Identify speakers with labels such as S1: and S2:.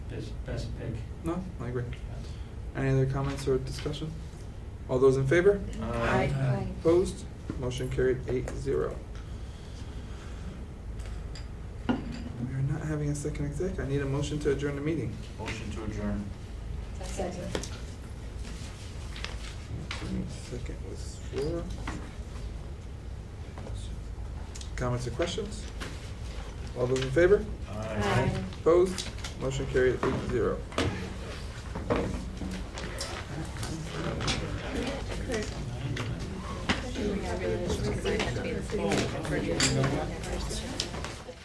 S1: best, best pick.
S2: No, I agree. Any other comments or discussion? All those in favor?
S3: Aye.
S1: Aye.
S2: Opposed? Motion carried eight zero. We are not having a second exec. I need a motion to adjourn the meeting.
S4: Motion to adjourn.
S3: Second.
S2: Second was four. Comments or questions? All those in favor?
S3: Aye.
S2: Opposed? Motion carried eight zero.
S3: Should we have it? Should we sign it to be the city?